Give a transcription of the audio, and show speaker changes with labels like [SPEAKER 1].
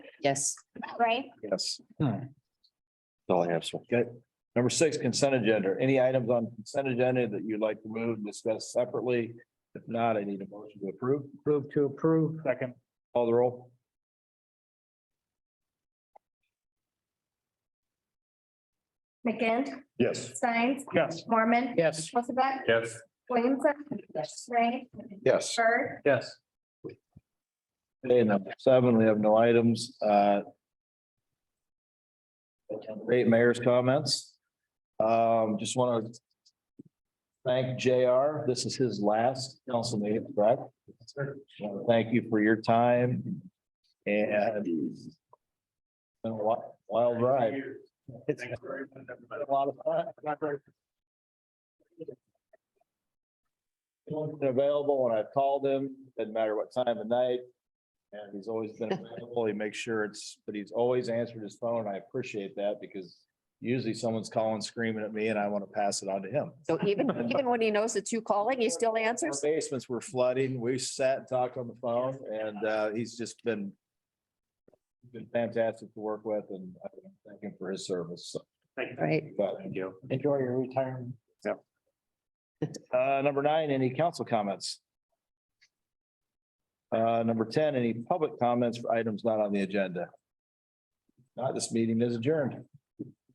[SPEAKER 1] Yes.
[SPEAKER 2] right?
[SPEAKER 3] Yes.
[SPEAKER 4] Alright.
[SPEAKER 3] All I have, sir.
[SPEAKER 4] Good. Hmm. Number six, consent agenda. Any items on consent agenda that you'd like to move, and discuss separately? If not, I need a motion to approve. Move to approve. Second. Call the roll.
[SPEAKER 2] McGinn,
[SPEAKER 3] Yes.
[SPEAKER 2] Steins,
[SPEAKER 4] Yes.
[SPEAKER 2] Mormon.
[SPEAKER 4] Yes.
[SPEAKER 2] Hilsaback,
[SPEAKER 3] Yes.
[SPEAKER 2] Williamson. Yes. Ray.
[SPEAKER 3] Yes.
[SPEAKER 2] Bird.
[SPEAKER 4] Yes. Okay, number seven, we have no items, uh. Great mayor's comments. Um, just want to. Thank JR. This is his last council meeting, correct? Wanna Thank you for your time and. it's Been a wild, wild ride. It's been a lot of fun. He's been available when I've called him, doesn't matter what time of night. And he's always been available. He makes sure it's, but he's always answered his phone. I appreciate that because usually someone's calling screaming at me and I want to pass it on to him.
[SPEAKER 1] So even, even when he knows it's you calling, he still
[SPEAKER 4] Our
[SPEAKER 1] answers?
[SPEAKER 4] Basements were flooding. We sat and talked on the phone and uh, he's just been been fantastic to work with and I thank him for his service. So,
[SPEAKER 1] Right.
[SPEAKER 4] but
[SPEAKER 3] Thank you.
[SPEAKER 4] enjoy your retirement.
[SPEAKER 3] Yep.
[SPEAKER 4] Uh, number nine, any council comments? Uh, number ten, any public comments for items not on the agenda? Not, this meeting is adjourned.